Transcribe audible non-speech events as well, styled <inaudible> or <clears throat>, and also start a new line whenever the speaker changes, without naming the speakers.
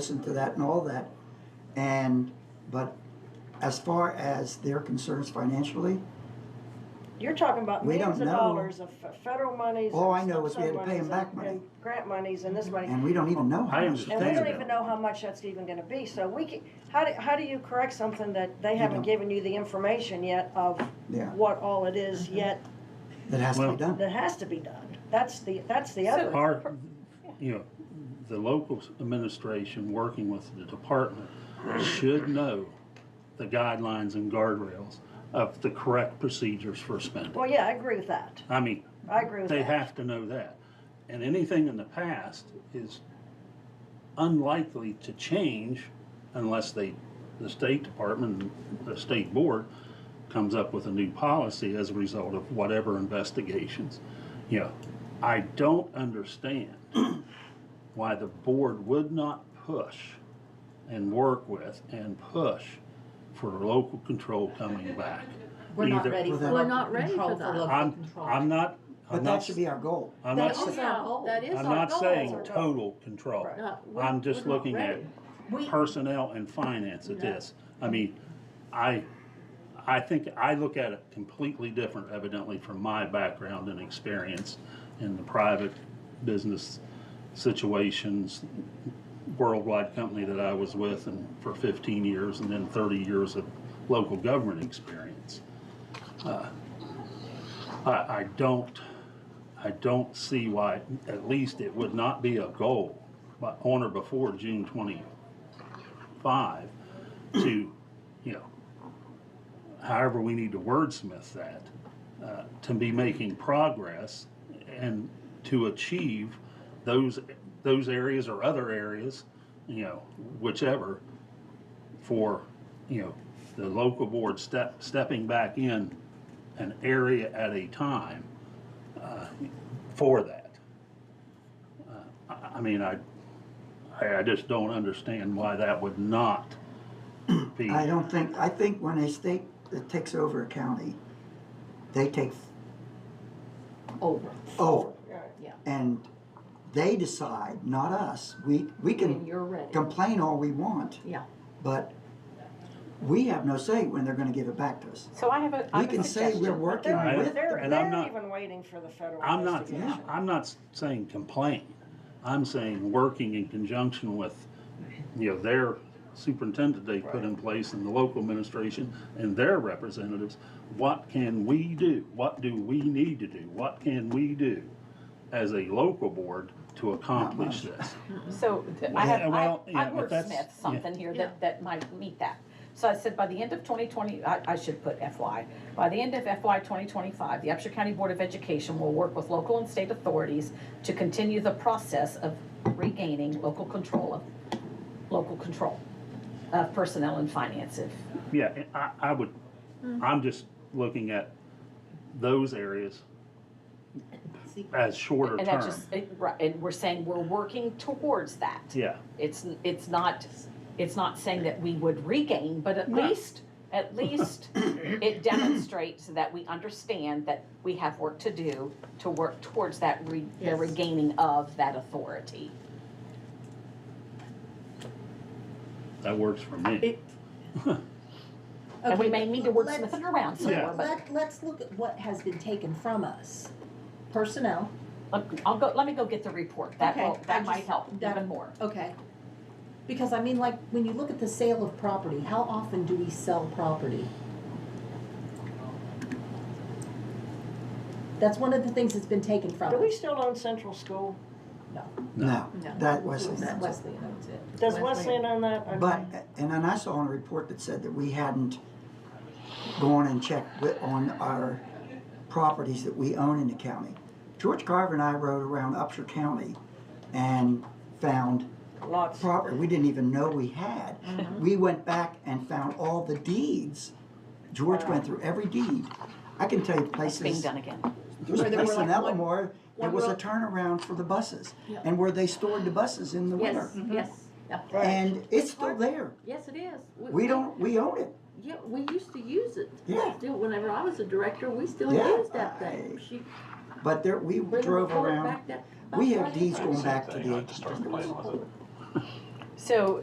listen to that and all that. And, but as far as their concerns financially,
You're talking about
We
millions
don't
of
know.
dollars of f- federal monies.
All
and
I know is we had to
sub
pay 'em
monies
back
and-
money.
and Grant monies and this money.
and we don't even know. how
I
much.
understand.
And we don't
Thank you.
even know how much that's even gonna be, so we can, how do, how do you correct something that they haven't
don't.
given you the information yet of
Yeah. Mm-hmm.
what all it is yet
That has to be
Well-
done.
that has to be done? That's the, that's the
So-
other.
Our, you know, the local administration, working with the department, should know the guidelines and guardrails of the correct procedures for spending.
Well, yeah, I agree with that.
I mean,
I agree with
they
that.
have to know that. And anything in the past is unlikely to change unless they, the State Department, the State Board comes up with a new policy as a result of whatever investigations. You know, I don't understand <clears throat> why the board would not push and work with and push for local control coming back.
We're not
Either-
ready for
We're
local
not ready
control
for that.
local
I'm,
control.
I'm not,
But
I'm
that
not,
should be our goal.
I'm
That
not, s-
is our goal.
That is
I'm
our
not
goal.
saying total control.
No, we're-
I'm just
we're not
looking at
ready. We-
personnel and finance at this. I mean, I, I think, I look at it completely different evidently from my background and experience in the private business situations, worldwide company that I was with and for fifteen years and then thirty years of local government experience. Uh, I, I don't, I don't see why, at least it would not be a goal, but on or before June twenty-five, to, you know, however we need to wordsmith that, uh, to be making progress and to achieve those, those areas or other areas, you know, whichever, for, you know, the local board step, stepping back in an area at a time uh, for that. Uh, I I mean, I, I I just don't understand why that would not be.
I don't think, I think when a state that takes over a county, they take
over.
over.
Yeah.
And they decide, not us. We, we
When
can
you're ready.
complain all we want,
Yeah.
but we have no say when they're gonna give it back to us.
So I have a, I
We
have
can
a
say we're
suggestion.
But
working
they're,
I-
with them.
they're,
and I'm
they're
not-
even waiting for the federal
I'm not,
investigation.
I'm not saying complain. I'm saying working in conjunction with, you know, their superintendent they put in place and the local administration and their representatives. What can we do? What do we need to do? What can we do as a local board to accomplish this?
So th- I have, I,
Well, yeah,
I
but that's-
wordsmithed something here
Yeah.
that, that might meet that. So I said, by the end of twenty twenty, I, I should put FY, by the end of FY twenty twenty-five, the Upshur County Board of Education will work with local and state authorities to continue the process of regaining local control of, local control of personnel and finance if,
Yeah, and I, I would,
Mm.
I'm just looking at those areas as shorter
And that
term.
just, it- right, and we're saying we're working towards that.
Yeah,
It's, it's not, it's not saying that we would regain, but at least, at
<laughs>
least it demonstrates that we understand that we have work to do to work towards that re, the
Yes.
regaining of that authority.
that works for me.
It-
And we
Okay,
may need to wordsmith
let's-
it around some
Yeah.
more, but
Let, let's look at what has been taken from us. Personnel,
let- I'll go, let me go get the report. That
Okay,
will, that
I
might
just-
help
that-
even more.
okay. Because I mean, like, when you look at the sale of property, how often do we sell property? That's one of the things that's been taken from
Do we
us.
still own Central School?
No,
No.
that Wesley.
That's Wesley, that's it.
Does Wesleyan own that? Okay.
But, and then I saw on a report that said that we hadn't gone and checked wi- on our properties that we own in the county. George Carver and I rode around Upshur County and found
Lots.
property we didn't even know we had. We went back and found all the deeds. George went through every deed. I can tell you
It's being
places,
done again.
there was a
Where there were
place in
like one-
Elmore, there
one
was a
row-
turnaround for the buses
Yeah.
and where they stored the buses in the winter.
Yes, yes. Yeah.
Mm-hmm.
And it's still there.
Yes, it is.
We don't, we own it.
Yeah, we used to use it.
Yeah.
Still, whenever I was a director, we still
Yeah.
used that thing.
I-
She
But there, we
bring the
drove
report
around,
back that-
we
back
have
right
deeds
there.
going back to
Same thing, I
the
just started playing with it.
So